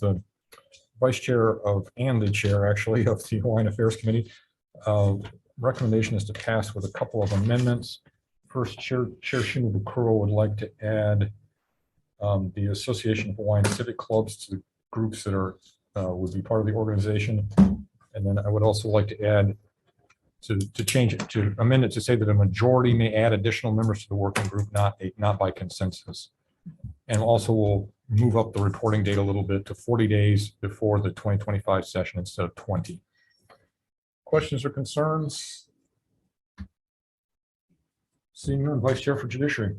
the vice chair of, and the chair actually of the Hawaiian Affairs Committee. Uh, Recommendation is to pass with a couple of amendments. First, Chair, Chair Shimabukuro would like to add um, the Association of Hawaiian Civic Clubs to the groups that are, uh, would be part of the organization. And then I would also like to add to, to change it, to amend it to say that a majority may add additional members to the working group, not, not by consensus. And also we'll move up the reporting date a little bit to forty days before the twenty twenty-five session instead of twenty. Questions or concerns? Seeing none, Vice Chair for Judiciary.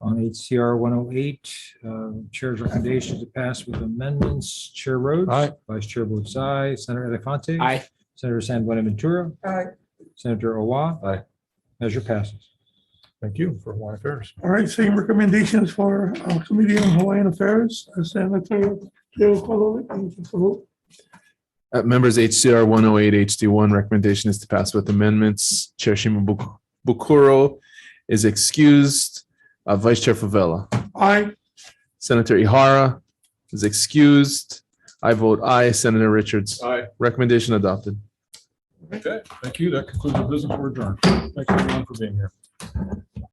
on HCR 108. um, oh Chair's recommendation to pass with amendments. Chair Rhodes. Aye. Vice Chair votes aye. Senator Elafante. Aye. Senator San Bonaventura. Aye. Senator Owa. Aye. Measure passes. Thank you for Hawaiian Affairs. All right, same recommendations for uh, Committee on Hawaiian Affairs, uh, Senator Joe Kolowik. you can vote. Uh, members HCR one oh eight HD one recommendation is to pass with amendments. Chair Shimabukuro is excused. Uh, Vice Chair Favela. Aye, Senator Ihara is excused. I vote aye. Senator Richards. Aye. Recommendation adopted. Okay, thank you. That concludes the business. We're adjourned. Thanks everyone for being here.